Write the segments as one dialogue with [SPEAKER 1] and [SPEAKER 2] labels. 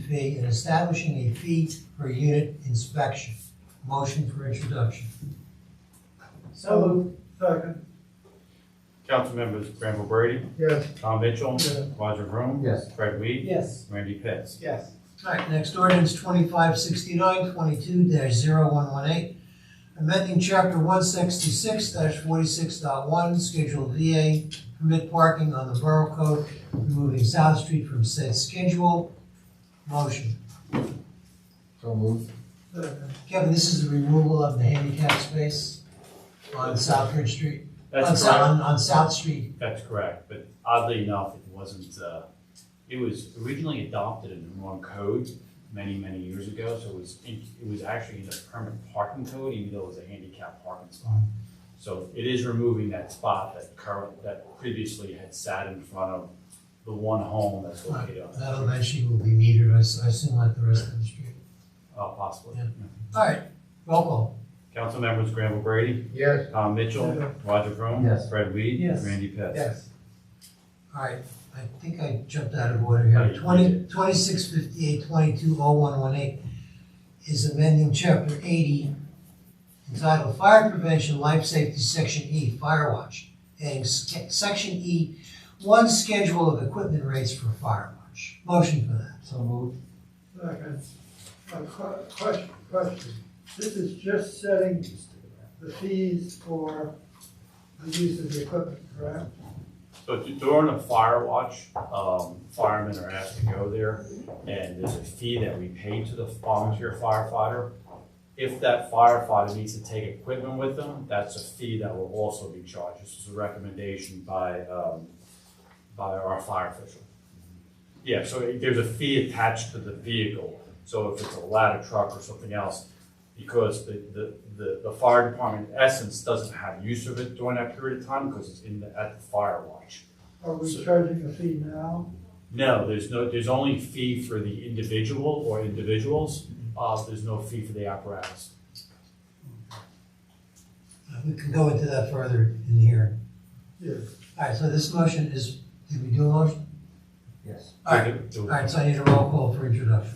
[SPEAKER 1] fee and establishing a fee per unit inspection. Motion for introduction.
[SPEAKER 2] So moved. Second.
[SPEAKER 3] Council members Granville Brady,
[SPEAKER 2] Yes.
[SPEAKER 3] Tom Mitchell,
[SPEAKER 2] Yes.
[SPEAKER 3] Roger Vroom.
[SPEAKER 4] Yes.
[SPEAKER 3] Fred Weed.
[SPEAKER 2] Yes.
[SPEAKER 3] Randy Pitts.
[SPEAKER 2] Yes.
[SPEAKER 1] All right, next ordinance twenty-five sixty-nine, twenty-two 118 amending chapter one sixty-six 46one Schedule VA, permit parking on the Borough Code, removing South Street from said schedule. Motion.
[SPEAKER 4] So moved.
[SPEAKER 2] Second.
[SPEAKER 1] Kevin, this is the removal of the handicap space on Southbridge Street, on,
[SPEAKER 3] That's
[SPEAKER 1] Sou-
[SPEAKER 3] correct.
[SPEAKER 1] on, on South Street.
[SPEAKER 3] That's correct, but oddly enough, it wasn't, uh, it was originally adopted in the wrong code many, many years ago, so it was, in- it was actually in the permanent parking code, even though it was a handicap parking spot. So it is removing that spot that current, that previously had sat in front of the one home that's located on
[SPEAKER 1] That
[SPEAKER 3] that street.
[SPEAKER 1] eventually will be metered, I s- I assume, like the rest of the street.
[SPEAKER 3] Uh, possibly.
[SPEAKER 1] Yeah. All right, roll call.
[SPEAKER 3] Council members Granville Brady,
[SPEAKER 4] Yes.
[SPEAKER 3] Tom Mitchell,
[SPEAKER 2] Yeah.
[SPEAKER 3] Roger Vroom.
[SPEAKER 4] Yes.
[SPEAKER 3] Fred Weed.
[SPEAKER 2] Yes.
[SPEAKER 3] Randy Pitts.
[SPEAKER 2] Yes.
[SPEAKER 1] All right, I think I jumped out of order
[SPEAKER 3] Oh,
[SPEAKER 1] here.
[SPEAKER 3] you
[SPEAKER 1] Twenty,
[SPEAKER 3] did.
[SPEAKER 1] twenty-six fifty-eight, twenty-two oh one one eight is amending chapter eighty entitled Fire Prevention Life Safety, Section E, Fire Watch, adding sca- Section E, one schedule of equipment rates for fire watch. Motion for that.
[SPEAKER 4] So moved.
[SPEAKER 2] Second. A que- question, question. This is just setting the fees for the use of the equipment, correct?
[SPEAKER 3] So d- during a fire watch, um, firemen are asked to go there, and there's a fee that we pay to the volunteer firefighter. If that firefighter needs to take equipment with them, that's a fee that will also be charged. This is a recommendation by, um, by our fire official. Yeah, so it- there's a fee attached to the vehicle, so if it's a ladder truck or something else, because the, the, the, the fire department in essence doesn't have use of it during that period of time, because it's in the, at the fire watch.
[SPEAKER 2] Are we charging a fee now?
[SPEAKER 3] No, there's no, there's only fee for the individual or individuals,
[SPEAKER 4] Mm-hmm.
[SPEAKER 3] uh, there's no fee for the apparatus.
[SPEAKER 1] Uh, We can go into that further in here.
[SPEAKER 2] Yes.
[SPEAKER 1] All right, so this motion is, did we do a motion?
[SPEAKER 4] Yes.
[SPEAKER 1] All right, all right, so I need a roll call for introduction.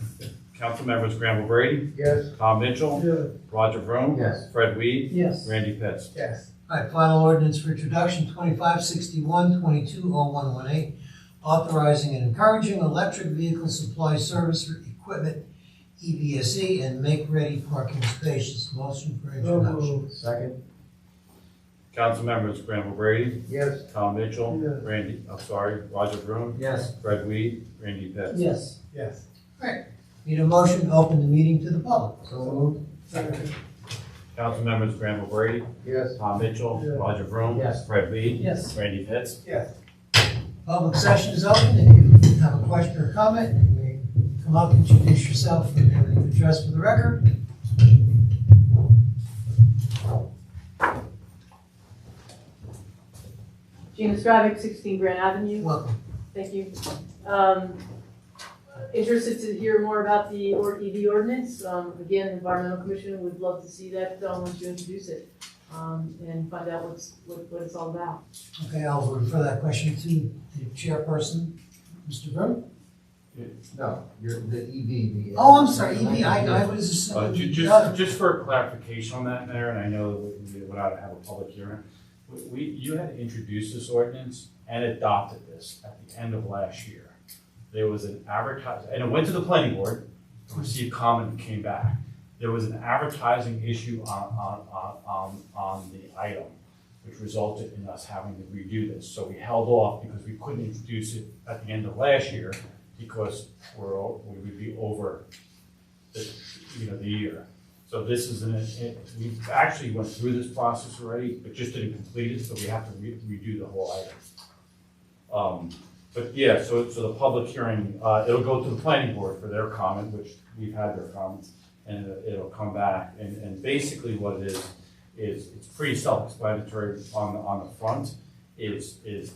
[SPEAKER 3] Council members Granville Brady,
[SPEAKER 4] Yes.
[SPEAKER 3] Tom Mitchell,
[SPEAKER 2] Yes.
[SPEAKER 3] Roger Vroom.
[SPEAKER 4] Yes.
[SPEAKER 3] Fred Weed,
[SPEAKER 1] Yes.
[SPEAKER 3] Randy Pitts.
[SPEAKER 2] Yes.
[SPEAKER 1] All right, final ordinance for introduction, twenty-five sixty-one, twenty-two oh one one eight, authorizing and encouraging electric vehicle supply service for equipment, E EVSE, and make-ready parking spaces. Motion for
[SPEAKER 2] So
[SPEAKER 1] introduction.
[SPEAKER 2] moved.
[SPEAKER 4] Second.
[SPEAKER 3] Council members Granville Brady,
[SPEAKER 4] Yes.
[SPEAKER 3] Tom Mitchell,
[SPEAKER 2] Yes.
[SPEAKER 3] Randy, I'm sorry, Roger Vroom,
[SPEAKER 4] Yes.
[SPEAKER 3] Fred Weed, Randy Pitts.
[SPEAKER 1] Yes.
[SPEAKER 2] Yes.
[SPEAKER 1] Need a motion to open the meeting to the public.
[SPEAKER 4] So moved.
[SPEAKER 2] Second.
[SPEAKER 3] Council members Granville Brady,
[SPEAKER 4] Yes.
[SPEAKER 3] Tom Mitchell,
[SPEAKER 2] Yeah.
[SPEAKER 3] Roger Vroom.
[SPEAKER 4] Yes.
[SPEAKER 3] Fred Weed.
[SPEAKER 1] Yes.
[SPEAKER 3] Randy Pitts.
[SPEAKER 2] Yes.
[SPEAKER 1] Public session is open. If you have a question or comment, you may come up, introduce yourself, and give an address for the record.
[SPEAKER 5] Gina Stravic, 16 Grand Avenue.
[SPEAKER 1] Welcome.
[SPEAKER 5] Thank you. Um, Interested to hear more about the or- EV ordinance. Um, Again, the Environmental Commission would love to see that done once you introduce it um, and find out what's, what what it's all about.
[SPEAKER 1] Okay, I'll refer that question to the chairperson, Mr. Burke.
[SPEAKER 4] No, you're the E EV. the-
[SPEAKER 1] Oh, I'm sorry, EV, I, I was
[SPEAKER 3] Uh,
[SPEAKER 1] assuming.
[SPEAKER 3] ju-
[SPEAKER 1] uh,
[SPEAKER 3] just, just for clarification on that, Mayor, and I know we can do it without having a public hearing, we- we, you had introduced this ordinance and adopted this at the end of last year. There was an advertising, and it went to the planning board, received comment, and came back. There was an advertising issue on, on, on, on, on the item, which resulted in us having to redo this. So we held off because we couldn't introduce it at the end of last year because we're, o- we would be over the, you know, the year. So this is an, it, we actually went through this process already, but just didn't complete it, so we have to re- redo the whole item. Um, but yeah, so, so the public hearing, uh, it'll go to the planning board for their comment, which we've had their comments, and it'll come back, and, and basically what it is, is it's pretty self-explanatory on, the on the front, is, is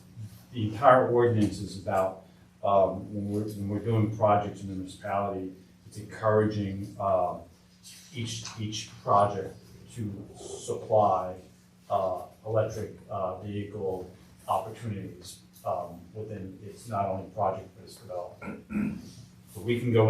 [SPEAKER 3] the entire ordinance is about, um, when we're, when we're doing projects in the municipality, it's encouraging uh, each, each project to supply uh, electric uh, vehicle opportunities um, within, it's not only project, but it's development. So we can go